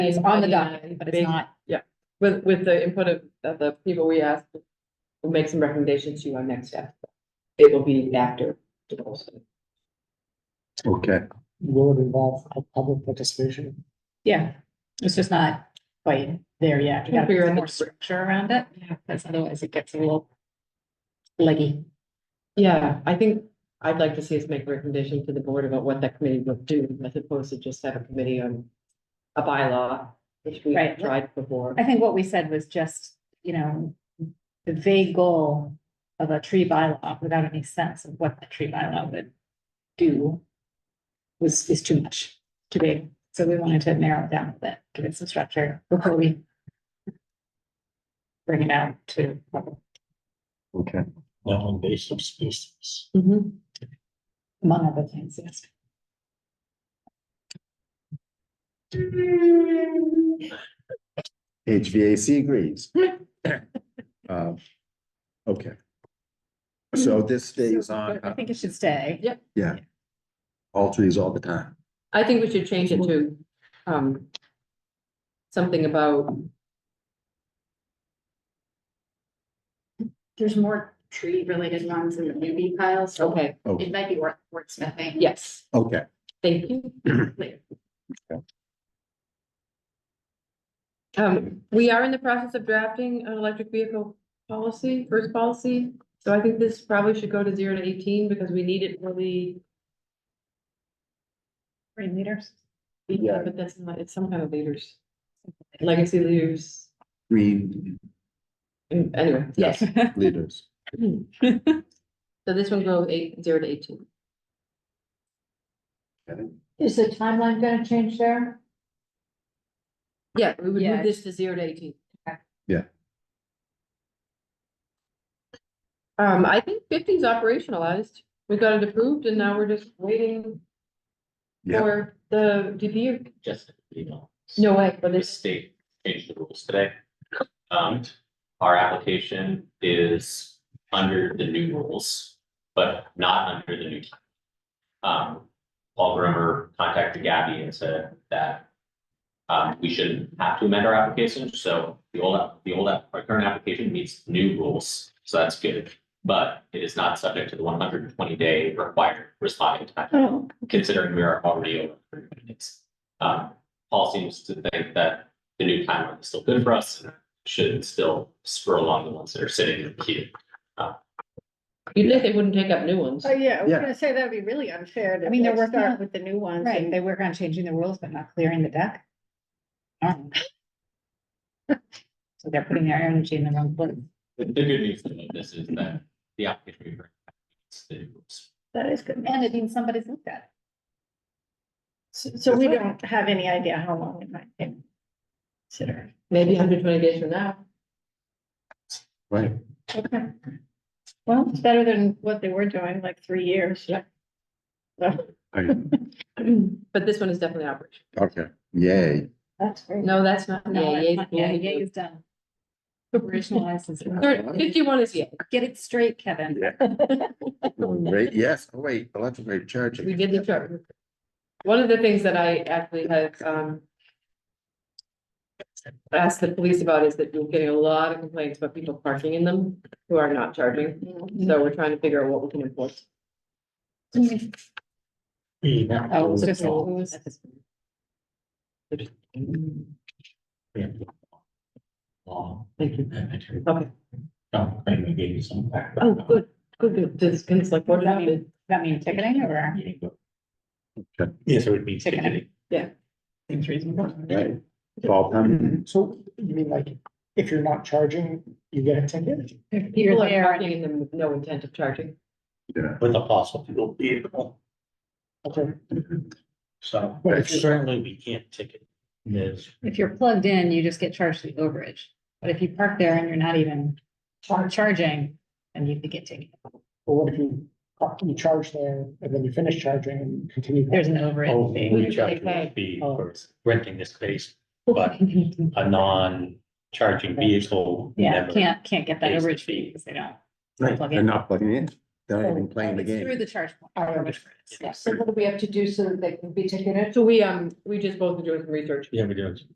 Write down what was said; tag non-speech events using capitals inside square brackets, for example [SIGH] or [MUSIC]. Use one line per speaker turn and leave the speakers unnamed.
It's on the document, but it's not.
With, with the input of, of the people we asked, we'll make some recommendations to you on next step. It will be after the goal setting.
Okay,
Will it involve pu- public participation?
Yeah, it's just not quite there yet. We gotta
Figure
figure
out
out more
the-
structure around it, because otherwise it gets a little leggy.
Yeah, I think I'd like to see us make a recommendation to the board about what that committee would do, as opposed to just have a committee on a bylaw, which we
Right.
tried before.
I think what we said was just, you know, the vague goal of a tree bylaw without any sense of what the tree bylaw would do was, is too much, too big. So we wanted to narrow it down a bit, give it some structure before we bring it out to
okay.
Non-invasive species.
Mhm.
among other things, yes.
HVAC agrees.
Hmm.
[COUGHS] Um, Okay. So this stays on, uh,
I think it should stay.
Yeah.
all trees all the time.
I think we should change it to, um, something about,
There's more tree related ones in the newbie pile, so
okay,
it might be worth wordsmithing.
yes,
Oh, Okay,
thank you. Um, we are in the process of drafting an electric vehicle policy, first policy. So I think this probably should go to zero to eighteen because we need it for the.
Three meters.
Yeah.
But that's not, it's some kind of leaders, legacy leaders,
[LAUGHS]
green
Mm, anyway, yes.
leaders.
So this one goes eight, zero to eighteen.
Okay.
Is the timeline gonna change there?
Yeah, we would
Yeah.
move this to zero to eighteen.
Yeah.
Um, I think 50 is operationalized. We got it approved and now we're just waiting
Yeah.
for the DPU.
just, you know,
No way, but
the
it's,
state changed the rules today. Um, our application is under the new rules, but not under the new. time. Um, Paul Bremer contacted Gabby and said that um, we shouldn't have to amend our application, so the old, app- the old, app- our current application meets new rules, so that's good. But it is not subject to the one hundred and twenty day required responding time, considering we are already over. 120 days. Um, Paul seems to think that the new timeline is still good for us and should still spur along the ones that are sitting in the queue.
you'd think they wouldn't take up new ones.
Oh, yeah, I was
Yeah.
gonna say that'd be really unfair to.
I mean, they're
like,
working
start
on-
With the new ones.
Right,
and-
they work on changing the rules, but not clearing the deck. Um, [LAUGHS] So they're putting their energy in the wrong place.
The the good news about this is that the application we bring back meets the new rules.
That is good.
And it means somebody's looked at
So so we don't have any idea how long it might take. Consider.
Maybe hundred twenty days from now.
Right,
Okay. Well, it's better than what they were doing, like three years.
Yeah.
So-
I-
But this one is definitely operational.
okay, yay.
That's great.
No, that's not.
it.
Yeah,
No,
yeah,
that's not- yeah, yeah, it's done. Operationalized is,
Third- Fifty-one is yeah.
get it straight, Kevin.
Wait, yes, oh, wait, electric rate charging.
We did the chart. One of the things that I actually had, um. Asked the police about is that we're getting a lot of complaints about people parking in them who are not charging, so we're trying to figure out what we can enforce.
Be that
Oh, it's
was
just-
all. Law,
Thank you.
and material.
Okay,
Don't claim we gave you some
oh,
background.
good, good, good, this can like what happened,
That mean ticketing or?
Okay.
Yes, it would be.
Chicken.
ticketing.
Yeah.
Seems reasonable.
Right. Fall time.
So you mean like, if you're not charging, you get a ticket?
people are
there.
parking in them with no intent of charging.
Yeah.
with a fossil fuel vehicle.
Okay.
So
Mm-hmm.
Right.
but certainly we can't ticket this.
If you're plugged in, you just get charged the overage. But if you park there and you're not even char- charging, then you could get ticketed.
But what if you, you charge there and then you finish charging and continue?
There's an overage
Oh,
fee.
we charge a fee
Oh.
for renting the space, but a non-charging vehicle.
[LAUGHS] Yeah,
never-
can't, can't get that
pays the
overage fee
fee.
because they don't.
Right,
Plug in. Oh,
they're not plugging in, they're not even playing the
It's Through
game.
the charge. point,
I
overage
understand.
rates, yes.
So what do we have to do so that they can be ticketed?
So we, um, we just both are doing some research
Yeah, we do.